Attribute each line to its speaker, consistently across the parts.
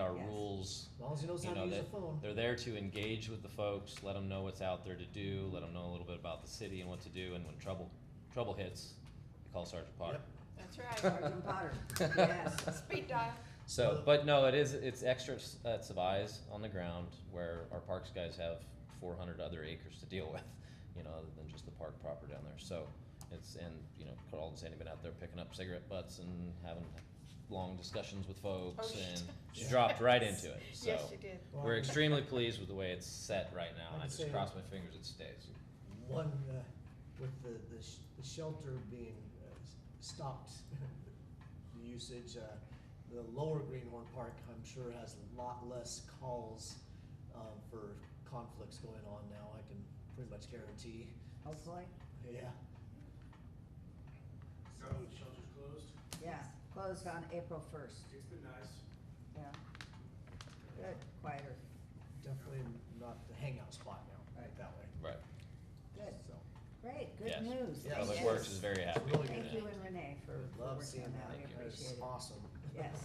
Speaker 1: our
Speaker 2: Yes.
Speaker 1: rules,
Speaker 3: As long as he knows
Speaker 1: You
Speaker 3: how to
Speaker 1: know,
Speaker 3: use a
Speaker 1: that-
Speaker 3: phone.
Speaker 1: they're there to engage with the folks, let them know what's out there to do, let them know a little bit about the city and what to do, and when trouble, trouble hits, you call Sergeant Potter.
Speaker 3: Yep.
Speaker 2: That's right.
Speaker 4: Sergeant Potter, yes.
Speaker 2: Speed dial.
Speaker 1: So, but no, it is, it's extra, s- uh, it's of eyes on the ground where our parks guys have four hundred other acres to deal with, you know, other than just the park proper down there, so. It's, and, you know, Carl and Sandy been out there picking up cigarette butts and having long discussions with folks
Speaker 2: Oh,
Speaker 1: and she
Speaker 3: yes.
Speaker 1: dropped right into it, so.
Speaker 2: Yes, you did.
Speaker 3: Well,
Speaker 1: We're
Speaker 3: I-
Speaker 1: extremely pleased with the way it's set right now, and I
Speaker 3: I'd
Speaker 1: just
Speaker 3: say-
Speaker 1: cross my fingers it stays.
Speaker 3: One, uh, with the, the, sh- the shelter being uh, s- stopped, the usage, uh, the lower Greenhorn Park, I'm sure has a lot less calls, um, for conflicts going on now, I can pretty much guarantee,
Speaker 4: Hopefully,
Speaker 3: yeah.
Speaker 5: So shelter's closed.
Speaker 4: yeah, closed on April first,
Speaker 5: It's been nice.
Speaker 4: yeah. Good, quieter,
Speaker 3: Definitely not the hangout spot now, right,
Speaker 4: Right.
Speaker 3: that way,
Speaker 1: Right.
Speaker 4: good,
Speaker 3: so.
Speaker 4: great, good
Speaker 1: Yes.
Speaker 4: news. Thank
Speaker 3: Yes.
Speaker 1: Public
Speaker 4: you.
Speaker 1: Works is very happy.
Speaker 3: really
Speaker 1: with
Speaker 4: Thank
Speaker 1: that.
Speaker 4: you and Renee for for
Speaker 3: Love
Speaker 4: working
Speaker 3: seeing
Speaker 4: on that,
Speaker 3: that,
Speaker 4: we
Speaker 1: Thank you.
Speaker 4: appreciate
Speaker 3: it's
Speaker 4: it.
Speaker 3: awesome.
Speaker 4: Yes,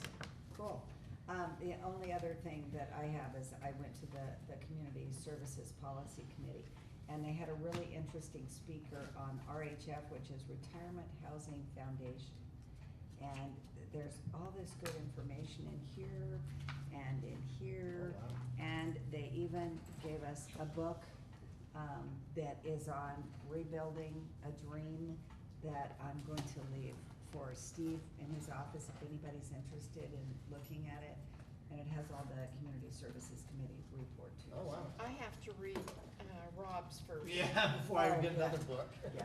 Speaker 4: cool. Um, the only other thing that I have is I went to the, the Community Services Policy Committee, and they had a really interesting speaker on RHF, which is Retirement Housing Foundation. And there's all this good information in here and in here.
Speaker 3: Oh, wow.
Speaker 4: And they even gave us a book um, that is on rebuilding a dream that I'm going to leave for Steve in his office if anybody's interested in looking at it. And it has all the Community Services Committee report too.
Speaker 3: Oh, wow.
Speaker 2: I have to read uh, Rob's first.
Speaker 3: Yeah, before I
Speaker 4: Oh,
Speaker 3: get
Speaker 4: yeah.
Speaker 3: another book.
Speaker 4: Yeah.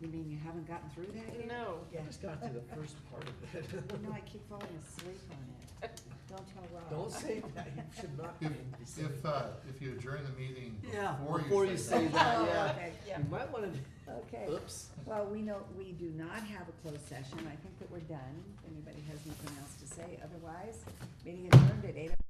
Speaker 4: You mean you haven't gotten through that yet?
Speaker 2: No.
Speaker 4: Yeah. Oh
Speaker 3: I just got through the first part of it.
Speaker 4: No, I keep falling asleep on it. Don't tell Rob.
Speaker 3: Don't say that, you should not be
Speaker 6: If,
Speaker 3: saying
Speaker 6: if, uh,
Speaker 3: that.
Speaker 6: if you adjourn the meeting
Speaker 3: Yeah,
Speaker 6: before
Speaker 3: before
Speaker 6: you say that.
Speaker 4: Oh,
Speaker 3: yeah.
Speaker 4: okay.
Speaker 2: Yeah.
Speaker 3: You might wanna,
Speaker 4: Okay.
Speaker 3: oops.
Speaker 4: Well, we know, we do not have a closed session. I think that we're done. If anybody has anything else to say, otherwise, meeting adjourned at eight oh